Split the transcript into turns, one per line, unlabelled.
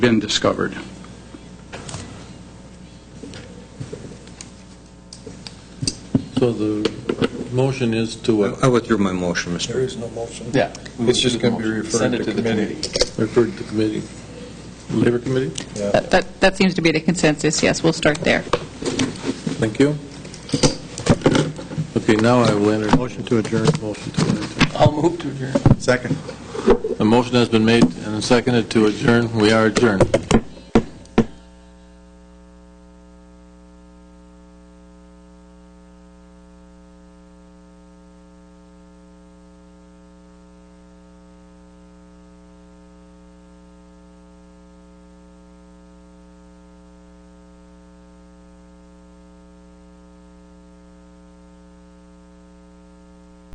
been discovered.
So the motion is to uh,
I withdrew my motion, Mr.
There is no motion.
Yeah.
It's just going to be
Send
referred
it
to
to the
committee.
refer to the committee, Labor Committee?
Yeah.
That- That, that seems to be the consensus, yes, we'll start there.
Thank you. Okay, now I will enter. Motion to adjourn. Motion to adjourn.
I'll move to adjourn.
Second.
A motion has been made and seconded to adjourn. We are adjourned.